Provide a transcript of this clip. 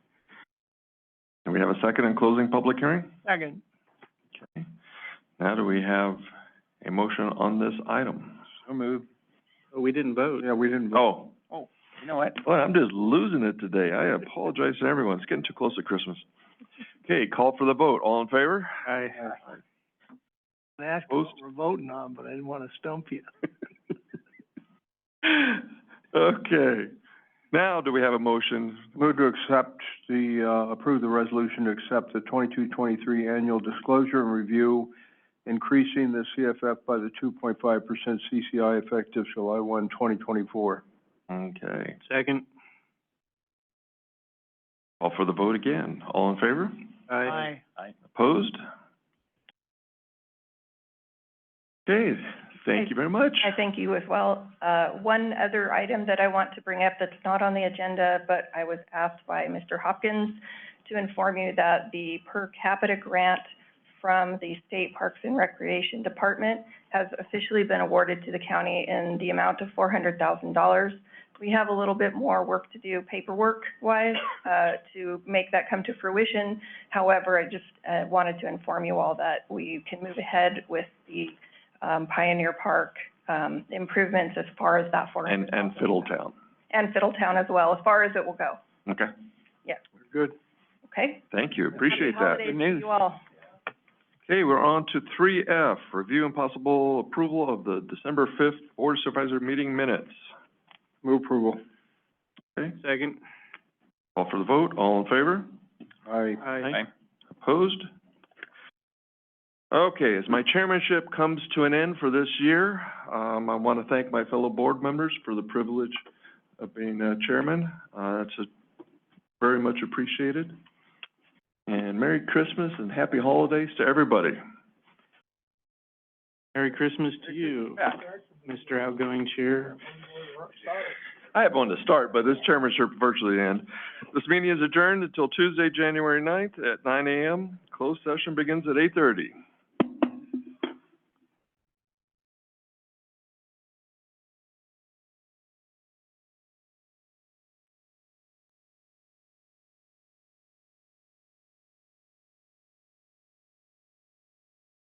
Can we have a second in closing public hearing? Second. Now, do we have a motion on this item? So moved. We didn't vote. Yeah, we didn't Oh, You know what? boy, I'm just losing it today. I apologize to everyone. It's getting too close to Christmas. Okay, call for the vote. All in favor? I. uh, I asked what Post. we're voting on, but I didn't want to stump you. Okay. Now, do we have a motion? Move to accept the, uh, approve the resolution to accept the twenty-two, twenty-three annual disclosure and review, increasing the CFF by the two point five percent CCI effective July one, twenty twenty-four. Okay. Second. Call for the vote again. All in favor? Aye. Aye. Opposed? Okay, thank you very much. I thank you as well. Uh, One other item that I want to bring up that's not on the agenda, but I was asked by Mr. Hopkins to inform you that the per capita grant from the State Parks and Recreation Department has officially been awarded to the county in the amount of four hundred thousand dollars. We have a little bit more work to do paperwork-wise uh, to make that come to fruition. However, I just uh, wanted to inform you all that we can move ahead with the um, Pioneer Park um, improvements as far as that four And, hundred and thousand. Fiddletown. And Fiddletown as well, as far as it will go, Okay, Good. okay? thank you. Appreciate that. Happy Good holidays to news. you all. Okay, we're on to three F, review and possible approval of the December fifth Board of Supervisor meeting minutes. Move approval. Second. Call for the vote. All in favor? Aye. Aye. Opposed? Okay, as my chairmanship comes to an end for this year, um, I want to thank my fellow board members for the privilege of being, uh, chairman. Uh, it's a- very much appreciated. And Merry Christmas and happy holidays to everybody. Merry Christmas to you, Mr. Outgoing Chair. I have one to start, but this chairmanship virtually end. This meeting is adjourned until Tuesday, January ninth at nine AM. Closed session begins at eight thirty.